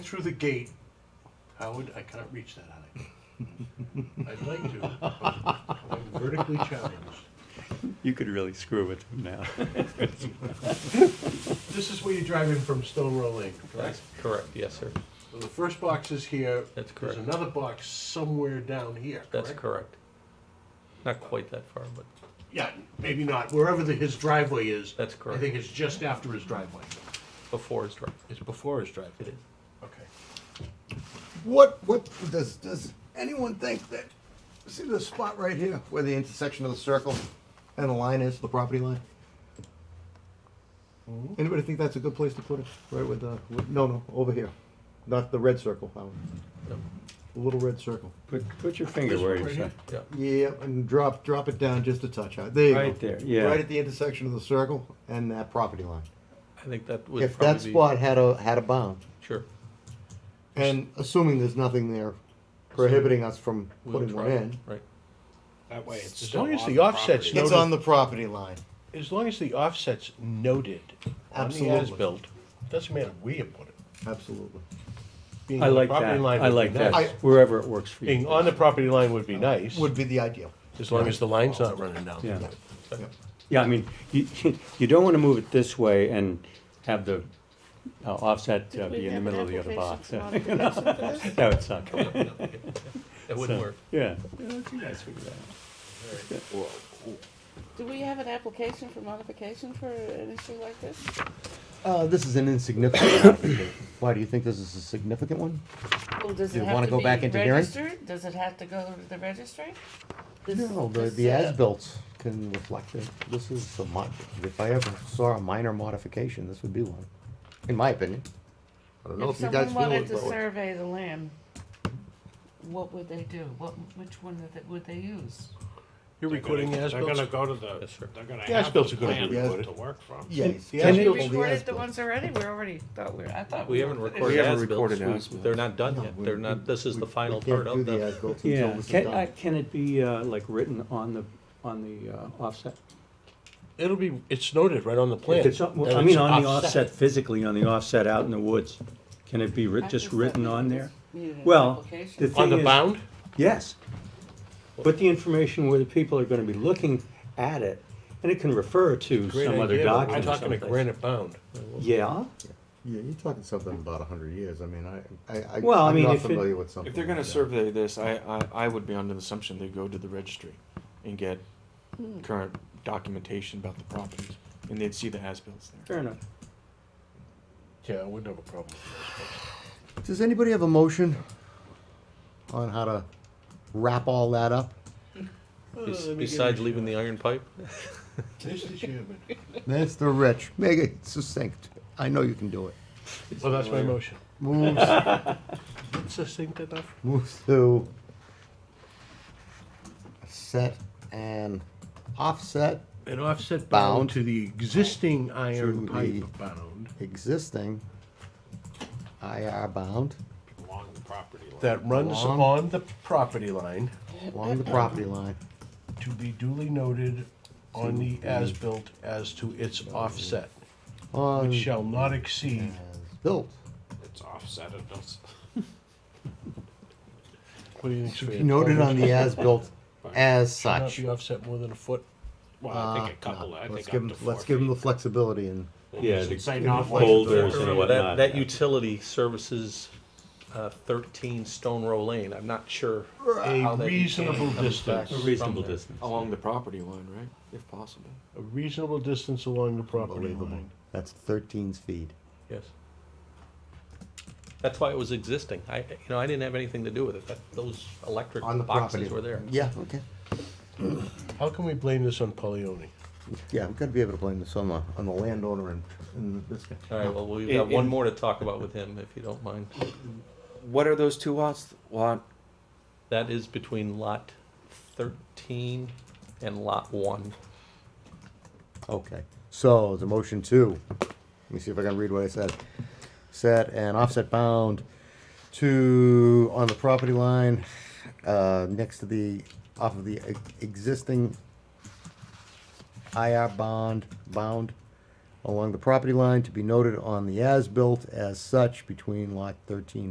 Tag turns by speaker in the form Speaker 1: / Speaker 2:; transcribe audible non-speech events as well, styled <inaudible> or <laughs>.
Speaker 1: through the gate, Howard, I cannot reach that height. I'd like to, but I'm vertically challenged.
Speaker 2: You could really screw with him now.
Speaker 1: This is where you drive in from Stone Row Lane, correct?
Speaker 3: That's correct, yes, sir.
Speaker 1: So the first box is here.
Speaker 3: That's
Speaker 1: There's
Speaker 3: correct.
Speaker 1: another box somewhere down here, correct?
Speaker 3: That's correct. Not quite that far, but
Speaker 1: Yeah, maybe not, wherever the, his driveway is.
Speaker 3: that's
Speaker 1: I
Speaker 3: correct.
Speaker 1: think it's just after his driveway.
Speaker 3: Before is driveway.
Speaker 1: It's before his driveway.
Speaker 3: It is.
Speaker 1: Okay.
Speaker 4: What, what, does, does anyone think that, see this spot right here where the intersection of the circle and the line is, the property line? Anybody think that's a good place to put it? Right with the, with- no, no, over here. Not the red circle, Howard.
Speaker 3: Yep.
Speaker 4: The little red circle.
Speaker 2: <laughs> Put, put your finger where
Speaker 1: Right
Speaker 2: you
Speaker 1: here?
Speaker 2: at.
Speaker 3: Yeah,
Speaker 4: Yeah, and drop, drop it down just a touch. Howard. There you go.
Speaker 2: Right there, yeah.
Speaker 4: Right at the intersection of the circle and that property line.
Speaker 3: I think that would
Speaker 4: If
Speaker 3: probably
Speaker 4: that
Speaker 3: be.
Speaker 4: spot had a, had a bound,
Speaker 3: Sure,
Speaker 4: and assuming there's nothing there prohibiting us from
Speaker 3: we'll
Speaker 4: putting
Speaker 3: try,
Speaker 4: one in.
Speaker 3: right.
Speaker 5: That way it's
Speaker 1: As
Speaker 5: still
Speaker 1: long as
Speaker 5: on
Speaker 1: the
Speaker 5: the
Speaker 1: offset's
Speaker 5: property.
Speaker 4: It's on the property line.
Speaker 1: As long as the offset's noted on the
Speaker 4: Absolutely.
Speaker 1: as-built, doesn't matter where you put it.
Speaker 4: Absolutely.
Speaker 1: Being
Speaker 2: I
Speaker 1: on the
Speaker 2: like
Speaker 1: property
Speaker 2: that,
Speaker 1: line
Speaker 2: I
Speaker 1: would be
Speaker 2: like that,
Speaker 1: nice.
Speaker 4: I-
Speaker 2: wherever it works for
Speaker 1: Being
Speaker 2: you.
Speaker 1: on the property line would be nice,
Speaker 4: Would be the ideal.
Speaker 1: as long as the line's not running down.
Speaker 2: Yeah,
Speaker 4: Yeah.
Speaker 2: yeah, I mean, you, you <laughs> don't wanna move it this way and have the uh, offset uh, be in the middle of the other box. <laughs> That would suck.
Speaker 3: That wouldn't work.
Speaker 2: Yeah. Yeah, that's a nice figure out.
Speaker 6: Do we have an application for modification for an issue like this?
Speaker 4: Uh, this is an insignificant <coughs> application. Why, do you think this is a significant one?
Speaker 6: Well, does
Speaker 4: Do
Speaker 6: it
Speaker 4: you
Speaker 6: have
Speaker 4: wanna
Speaker 6: to
Speaker 4: go
Speaker 6: be
Speaker 4: back into hearing?
Speaker 6: registered? Does it have to go to the registry? This-
Speaker 4: No, the,
Speaker 6: this,
Speaker 4: the
Speaker 6: uh,
Speaker 4: as-built can reflect it. This is a mon, if I ever saw a minor modification, this would be one, in my opinion. I don't know
Speaker 6: If
Speaker 4: if you guys
Speaker 6: someone
Speaker 4: feel
Speaker 6: wanted
Speaker 4: it,
Speaker 6: to
Speaker 4: but.
Speaker 6: survey the land, what would they do? What, which one would they- would they use?
Speaker 1: You're recording the
Speaker 5: They're gonna
Speaker 1: as-built?
Speaker 5: go to the,
Speaker 3: Yes, sir.
Speaker 5: they're gonna
Speaker 1: The
Speaker 5: have the
Speaker 1: as-bilt's are gonna
Speaker 5: plan
Speaker 4: be recorded.
Speaker 5: to work from.
Speaker 4: Yes.
Speaker 1: Can
Speaker 6: We
Speaker 1: it-
Speaker 4: the
Speaker 6: recorded the
Speaker 4: as-built.
Speaker 6: ones already, we already thought we, I thought.
Speaker 3: We haven't
Speaker 6: were finished.
Speaker 3: recorded
Speaker 7: haven't
Speaker 3: as-bills,
Speaker 7: recorded
Speaker 3: We-
Speaker 7: as-bills.
Speaker 3: they're not done
Speaker 4: No,
Speaker 3: yet,
Speaker 4: we-
Speaker 3: they're
Speaker 4: we-
Speaker 3: not, this is
Speaker 4: we-
Speaker 3: the
Speaker 4: we
Speaker 3: final
Speaker 4: can't
Speaker 3: part
Speaker 4: do
Speaker 3: of
Speaker 4: the
Speaker 3: them.
Speaker 4: as-built until
Speaker 2: Yeah,
Speaker 4: this is
Speaker 2: can,
Speaker 4: done.
Speaker 2: I, can it be, uh, like written on the, on the, uh, offset?
Speaker 1: It'll be, it's noted right on the plan.
Speaker 2: If it's, on-
Speaker 1: that
Speaker 2: I mean,
Speaker 1: it's
Speaker 2: on the offset, physically on the offset out in the woods, can it be
Speaker 6: I
Speaker 2: writ, just
Speaker 6: thought
Speaker 2: written
Speaker 6: we
Speaker 2: on
Speaker 6: just
Speaker 2: there?
Speaker 6: needed an
Speaker 2: Well,
Speaker 6: application.
Speaker 2: the
Speaker 1: On
Speaker 2: thing
Speaker 1: the
Speaker 2: is-
Speaker 1: bound?
Speaker 2: Yes. But the information where the people are gonna be looking at it, and it can refer to
Speaker 1: Great
Speaker 2: some other
Speaker 1: idea, but
Speaker 2: document or
Speaker 1: I'm talking a
Speaker 2: someplace.
Speaker 1: granite bound.
Speaker 2: Yeah,
Speaker 4: Yeah, you're talking something about a hundred years. I mean, I, I, I-
Speaker 2: Well, I
Speaker 4: I'm
Speaker 2: mean,
Speaker 4: not
Speaker 2: if it-
Speaker 4: familiar with something.
Speaker 7: If they're gonna
Speaker 4: like that.
Speaker 7: survey this, I, I, I would be under the assumption they go to the registry and get current documentation about the properties, and they'd see the as-bills there.
Speaker 2: fair enough.
Speaker 1: Yeah, I wouldn't have a problem.
Speaker 4: Does anybody have a motion on how to wrap all that up?
Speaker 3: Bes- Besides leaving the iron pipe,
Speaker 1: Mr. Chairman.
Speaker 4: Mr. Rich, make it succinct. I know you can do it.
Speaker 1: Well, that's my motion.
Speaker 4: Moves,
Speaker 1: Succinct enough?
Speaker 4: moves to set an offset
Speaker 1: An offset
Speaker 4: Bound.
Speaker 1: bound to the existing iron
Speaker 4: To
Speaker 1: pipe
Speaker 4: the-
Speaker 1: bound
Speaker 4: existing IR bound
Speaker 5: Along the property line.
Speaker 1: that runs
Speaker 4: Long.
Speaker 1: on the property line
Speaker 4: along the property line.
Speaker 1: to be duly noted on the as-built as to its offset,
Speaker 4: On
Speaker 1: which shall not exceed
Speaker 4: as built.
Speaker 5: It's offset, it does.
Speaker 1: What do you think's fair?
Speaker 4: Noted on the as
Speaker 5: <laughs>
Speaker 4: built as
Speaker 1: Should
Speaker 4: such.
Speaker 1: Not be offset more than a foot.
Speaker 5: Well, I
Speaker 4: Uh,
Speaker 5: think a couple,
Speaker 4: no,
Speaker 5: I
Speaker 4: let's give
Speaker 5: think up to
Speaker 4: 'em-
Speaker 5: four
Speaker 4: Let's give them the
Speaker 5: feet.
Speaker 4: flexibility and,
Speaker 2: Yeah,
Speaker 5: Should
Speaker 2: the
Speaker 5: Say not
Speaker 2: boulders
Speaker 5: like-
Speaker 2: and
Speaker 3: Remember, that,
Speaker 2: whatnot.
Speaker 3: that utility services uh, thirteen Stone Row Lane, I'm not sure. how
Speaker 1: A
Speaker 3: that utility
Speaker 1: reasonable
Speaker 3: comes back
Speaker 1: distance,
Speaker 2: A
Speaker 3: from
Speaker 2: reasonable
Speaker 3: there.
Speaker 2: distance.
Speaker 7: Along the property line, right, if possible.
Speaker 1: a reasonable distance along the property
Speaker 4: unbelievable.
Speaker 1: line.
Speaker 4: That's thirteen feet.
Speaker 3: Yes. That's why it was existing. I, you know, I didn't have anything to do with it. That, those electric
Speaker 4: On the
Speaker 3: boxes
Speaker 4: property.
Speaker 3: were there.
Speaker 4: Yeah, okay.
Speaker 1: How can we blame this on Polioni?
Speaker 4: Yeah, we've got to be able to blame this on the, on the landowner and, and this guy.
Speaker 3: All right, well, we've
Speaker 7: In-
Speaker 3: got one
Speaker 7: in-
Speaker 3: more to talk about with him, if you don't mind.
Speaker 7: What are those two lots? Lot,
Speaker 3: That is between lot thirteen and lot one.
Speaker 4: Okay, so the motion two, let me see if I can read what I said. Set an offset bound to, on the property line, uh, next to the, off of the e- existing IR bond, bound along the property line to be noted on the as-built as such between lot thirteen